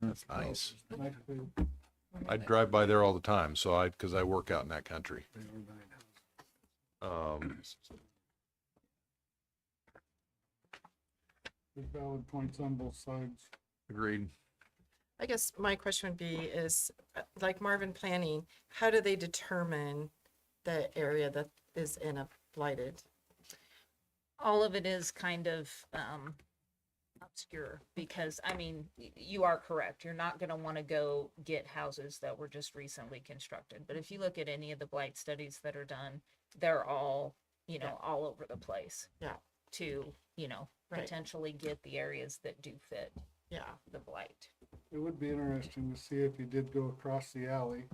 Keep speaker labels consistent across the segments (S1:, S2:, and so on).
S1: That's nice. I
S2: I'd
S1: drive by there all the time, so I, because I work out in that country. Um,
S3: Valid points on both sides.
S1: agreed.
S2: I guess my question would be is, uh, like Marvin Planning, how do they determine the area that is in a blighted?
S4: all of it is kind of um obscure because I mean y- you are correct. You're not going to want to go get houses that were just recently constructed. But if you look at any of the blight studies that are done, they're all you know all over the place.
S2: Yeah.
S4: To you know
S2: Right.
S4: potentially get the areas that do fit
S2: Yeah,
S4: the blight.
S3: It would be interesting to see if he did go across the alley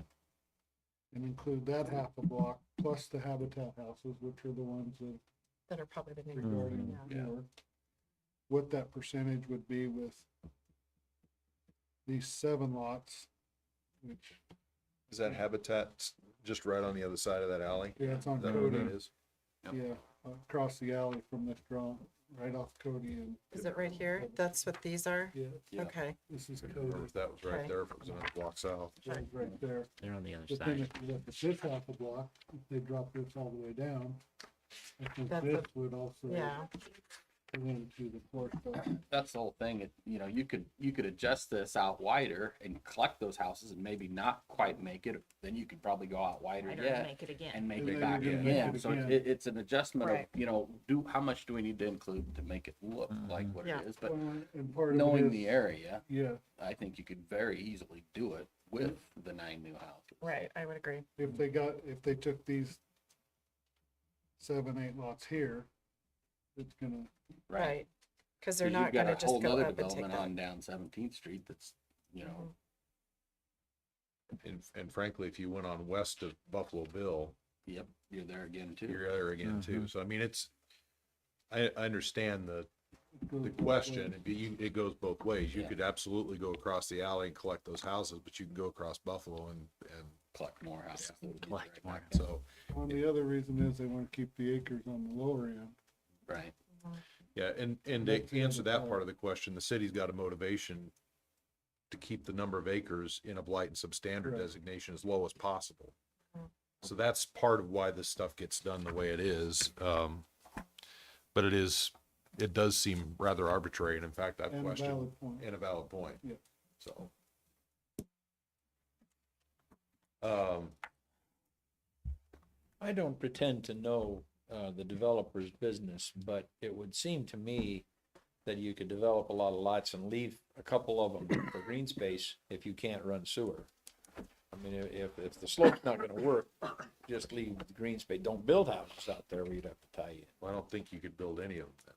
S3: and include that half a block, plus the habitat houses, which are the ones that
S2: that are probably the
S5: Mm-hmm.
S2: new.
S3: regarding
S2: Mhm.
S3: here. What that percentage would be with these seven lots, which,
S1: Is that Habitat just right on the other side of that alley?
S3: yeah, it's on
S1: Is that what
S3: Cody,
S1: that is?
S3: yeah, across the alley from this drawing, right off Cody and,
S2: Is it right here? That's what these are?
S3: yeah,
S5: Yeah.
S2: Okay,
S3: this is
S1: I couldn't
S3: Cody,
S1: remember if that was right
S2: Okay.
S1: there, if it was another block south.
S3: that was right there.
S5: They're on the other
S3: But then
S5: side.
S3: if you look at this half a block, if they drop this all the way down, I think
S2: That's
S3: this
S2: a-
S3: would also
S2: yeah,
S3: go into the court.
S5: That's the whole thing. It, you know, you could, you could adjust this out wider and collect those houses and maybe not quite make it. Then you could probably go out
S4: I
S5: wider
S4: don't
S5: yet
S4: make it again.
S5: and make
S3: And
S5: it
S3: then
S5: back
S3: you
S1: can
S5: in.
S3: make it
S5: So
S3: again.
S5: it, it's an adjustment of,
S4: Right.
S5: you know, do, how much do we need to include to make it look
S6: Mm-hmm.
S5: like what
S2: Yeah.
S5: it is? But
S3: And part of it
S5: knowing
S3: is-
S5: the area,
S3: Yeah,
S5: I think you could very easily do it with the nine new houses.
S2: right, I would agree.
S3: if they got, if they took these seven, eight lots here, it's gonna,
S2: Right. Because they're
S5: 'Cause
S2: not
S5: you've got
S2: gonna
S5: a
S2: just
S5: whole
S2: go
S5: nother
S2: up and take
S5: development
S2: that.
S5: On down Seventeenth Street that's, you know,
S2: Mhm.
S1: And, and frankly, if you went on west of Buffalo Bill,
S5: yep, you're there again too.
S1: you're there again too. So I mean, it's, I, I understand the,
S3: it goes
S1: the
S3: both ways.
S1: question, it be- you- it goes both ways. You
S5: Yeah.
S1: could absolutely go across the alley and collect those houses, but you can go across Buffalo and, and
S5: collect more houses. that would be
S6: Collect
S5: right
S6: more.
S5: back.
S1: so,
S3: Well, the other reason is they wanna keep the acres on the lower end.
S5: Right.
S1: yeah, and, and
S3: That's the
S1: to
S3: other
S1: answer that part
S3: part.
S1: of the question, the city's got a motivation to keep the number of acres in a blight and substandard
S3: Correct.
S1: designation as low as possible.
S3: Mm.
S2: Mhm.
S1: So that's part of why this stuff gets done the way it is. Um, but it is, it does seem rather arbitrary, and in fact, I've
S3: And a
S1: questioned,
S3: valid point.
S1: and a valid point.
S3: Yeah.
S1: So. Um,
S7: I don't pretend to know uh, the developer's business, but it would seem to me that you could develop a lot of lots and leave a couple of them for green space if you can't run sewer. I mean, i- if, if the slope's not gonna work, just leave the green space. Don't build houses out there where you'd have to tie you.
S1: I don't think you could build any of them.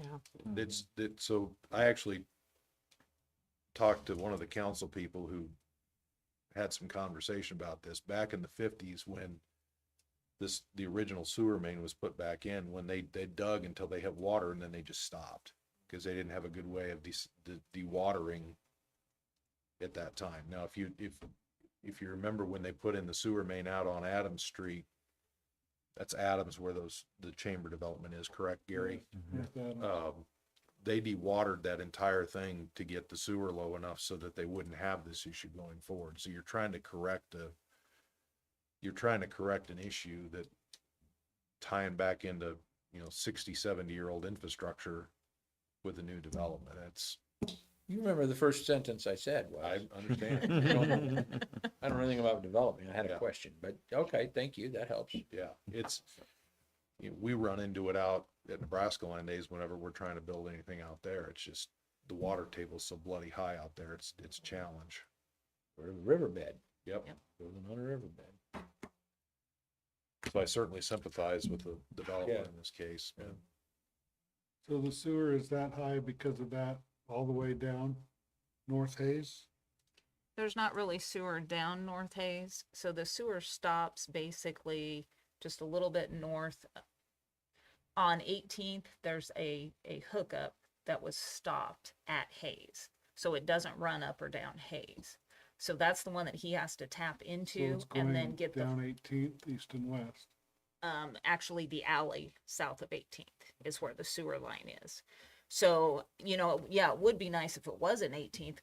S2: Mm-hmm, Yeah,
S1: That's, that, so I actually talked to one of the council people who had some conversation about this back in the fifties when this, the original sewer main was put back in, when they, they dug until they had water and then they just stopped. Cause they didn't have a good way of de- de- dewatering at that time. Now, if you, if, if you remember when they put in the sewer main out on Adams Street, that's Adams where those, the chamber development is, correct, Gary?
S3: With that,
S1: um, they de-watered that entire thing to get the sewer low enough so that they wouldn't have this issue going forward. So you're trying to correct a, you're trying to correct an issue that tying back into, you know, 60, 70 year old infrastructure with a new development. That's,
S7: You remember the first sentence I said
S1: I
S7: was,
S1: understand.
S7: I don't know- I don't know anything about development. I had
S1: Yeah.
S7: a question, but okay, thank you. That helps.
S1: Yeah, it's, you know, we run into it out at Nebraska land days whenever we're trying to build anything out there. It's just the water table's so bloody high out there. It's, it's a challenge.
S7: We're in a riverbed,
S1: Yep.
S7: building on a riverbed.
S1: So I certainly sympathize with the developer
S7: Yeah.
S1: in this case. but-
S3: So the sewer is that high because of that, all the way down North Hayes?
S4: there's not really sewer down North Hayes, so the sewer stops basically just a little bit north. uh, On 18th, there's a, a hookup that was stopped at Hayes, so it doesn't run up or down Hayes. So that's the one that he has to tap
S3: So
S4: into
S3: it's
S4: and
S3: going
S4: then get the,
S3: Down Eighteenth, east and west.
S4: um, actually the alley south of 18th is where the sewer line is. So, you know, yeah, it would be nice if it was an 18th